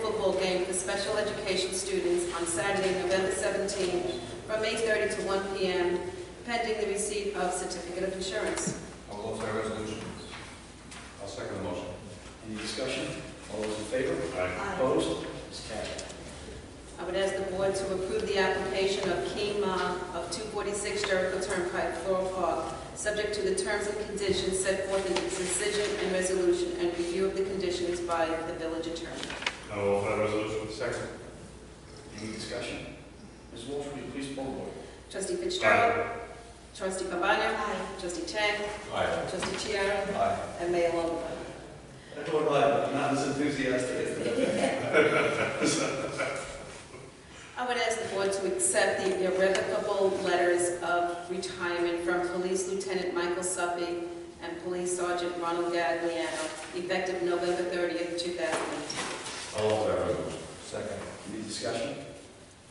School game for special education students on Saturday, November 17, from 8:30 to 1 p.m., pending the receipt of certificate of insurance. I will offer a resolution. I'll second the motion. Any discussion? All those in favor? Aye. I Opposed? It's carried. would ask the board to approve the application of Keen Ma of 246 Jericho Turnpike, Floral Park, subject to the terms and conditions set forth in the decision and resolution and review of the conditions by the village attorney. I will offer a resolution. Second. Any discussion? Ms. Walsh, will you please poll the board? Trustee Fitzgerald. Trustee Cabana. Trustee Chang. Aye. Trustee Chiara. Aye. And Mayor Longfellow. I don't know, I'm not as enthusiastic as I would ask the board to accept the irrevocable letters of retirement from Police Lieutenant Michael Suppy and Police Sergeant Ronald Gagliano, effective November 30th, 2018. I'll offer a resolution. Second. Any discussion?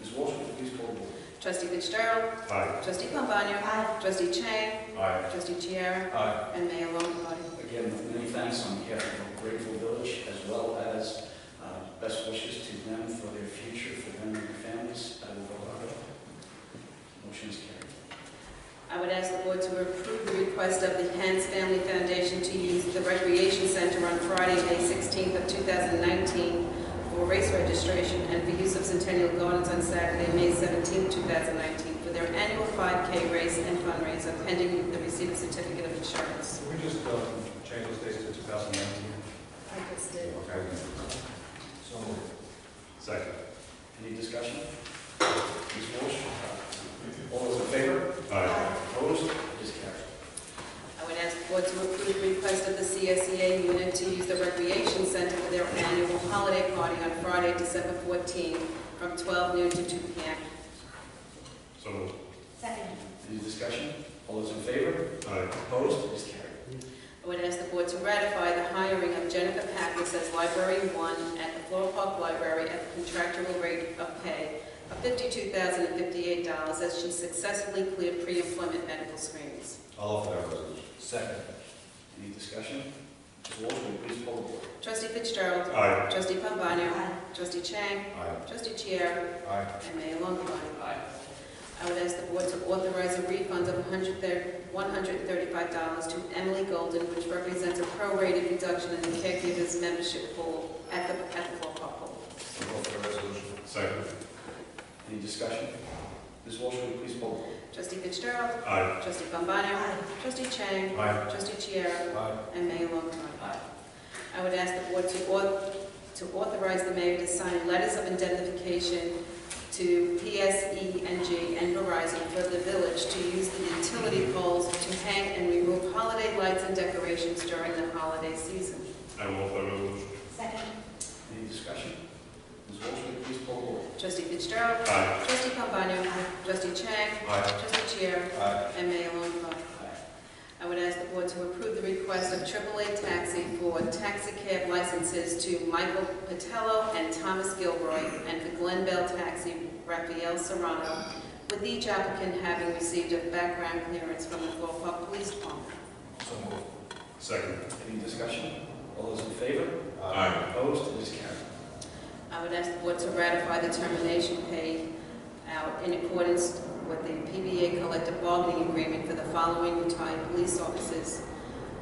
Ms. Walsh, will you please poll the board? Trustee Fitzgerald. Aye. Trustee Pombana. Trustee Chang. Aye. Trustee Chiara. Aye. And Mayor Longfellow. Again, many thanks on behalf of Grateful Village, as well as uh, best wishes to them for their future, for them and their families. I will vote aye. Motion is carried. I would ask the board to approve the request of the Hans Family Foundation to use the Recreation Center on Friday, May 16th of 2019 for race registration and for use of Centennial Gardens on Saturday, May 17th, 2019 for their annual 5K race and fundraiser pending the receipt of certificate of insurance. Can we just um, change those dates to 2019? Okay. So moved. Second. Any discussion? Ms. Walsh? All those in favor? Opposed? It is carried. I would ask the board to approve the request of the CSEA unit to use the recreation center for their annual holiday party on Friday, December 14th from 12 noon to 2 p.m. So moved. Second. Any discussion? All those in favor? Aye. Opposed? It is carried. I would ask the board to ratify the hiring of Jennifer Pappas as Library One at the Floral Park Library at the contractual rate of pay of $52,058 as she successfully cleared pre-employment medical screenings. I'll offer a resolution. Second. Any discussion? Ms. Walsh, will you please poll the board? Trustee Fitzgerald. Aye. Trustee Pombana. Aye. Trustee Chang. Aye. Trustee Chiara. Aye. And Mayor Longfellow. Aye. I would ask the board to authorize a refund of $135 to Emily Golden, which represents a prorated reduction in the caregiver's membership pool at the at the Floral Park pool. I'll offer a resolution. Second. Any discussion? Ms. Walsh, will you please poll the board? Trustee Fitzgerald. Aye. Trustee Pombana. Trustee Chang. Aye. Trustee Chiara. Aye. And Mayor Longfellow. Aye. I would ask the board to auth- to authorize the mayor to sign letters of indemnification to PSENG and Verizon for the village to use the utility poles to hang and remove holiday lights and decorations during the holiday season. I will offer a resolution. Second. Any discussion? Ms. Walsh, will you please poll the board? Trustee Fitzgerald. Aye. Trustee Pombana. Trustee Chang. Aye. Trustee Chair. Aye. And Mayor Longfellow. I would ask the board to approve the request of AAA Taxi for taxi cab licenses to Michael Patello and Thomas Gilroy, and for Glen Bell Taxi, Raphael Serrano, with each applicant having received a background clearance from the Floral Park Police Department. So moved. Second. Any discussion? All those in favor? Aye. Opposed? It is carried. I would ask the board to ratify the termination pay out in accordance with the PBA collective bargaining agreement for the following retired police officers.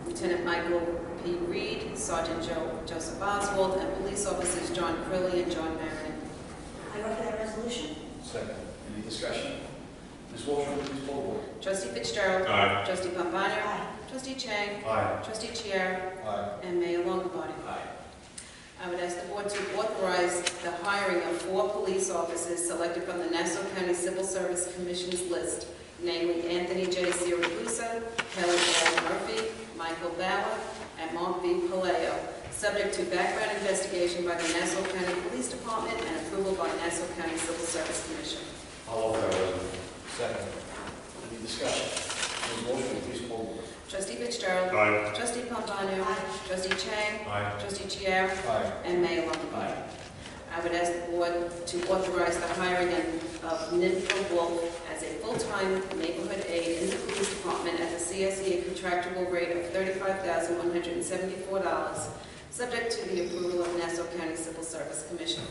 Lieutenant Michael P. Reed, Sergeant Joe Joseph Oswald, and police officers John Crilly and John Marion. I vote for that resolution. Second. Any discussion? Ms. Walsh, will you please poll the board? Trustee Fitzgerald. Aye. Trustee Pombana. Aye. Trustee Chang. Aye. Trustee Chiara. Aye. And Mayor Longabody. Aye. I would ask the board to authorize the hiring of four police officers selected from the Nassau County Civil Service Commission's list, namely Anthony J. Siragusa, Kelly L. Murphy, Michael Bauer, and Mark V. Paleo, subject to background investigation by the Nassau County Police Department and approval by Nassau County Civil Service Commission. I'll offer a resolution. Second. Any discussion? Ms. Walsh, will you please poll the board? Trustee Fitzgerald. Aye. Trustee Pombana. Trustee Chang. Aye. Trustee Chiara. Aye. And Mayor Longfellow. Aye. I would ask the board to authorize the hiring of Ninfa Wolf as a full-time neighborhood aide in the police department at the CSEA contractual rate of $35,174, subject to the approval of Nassau County Civil Service Commission.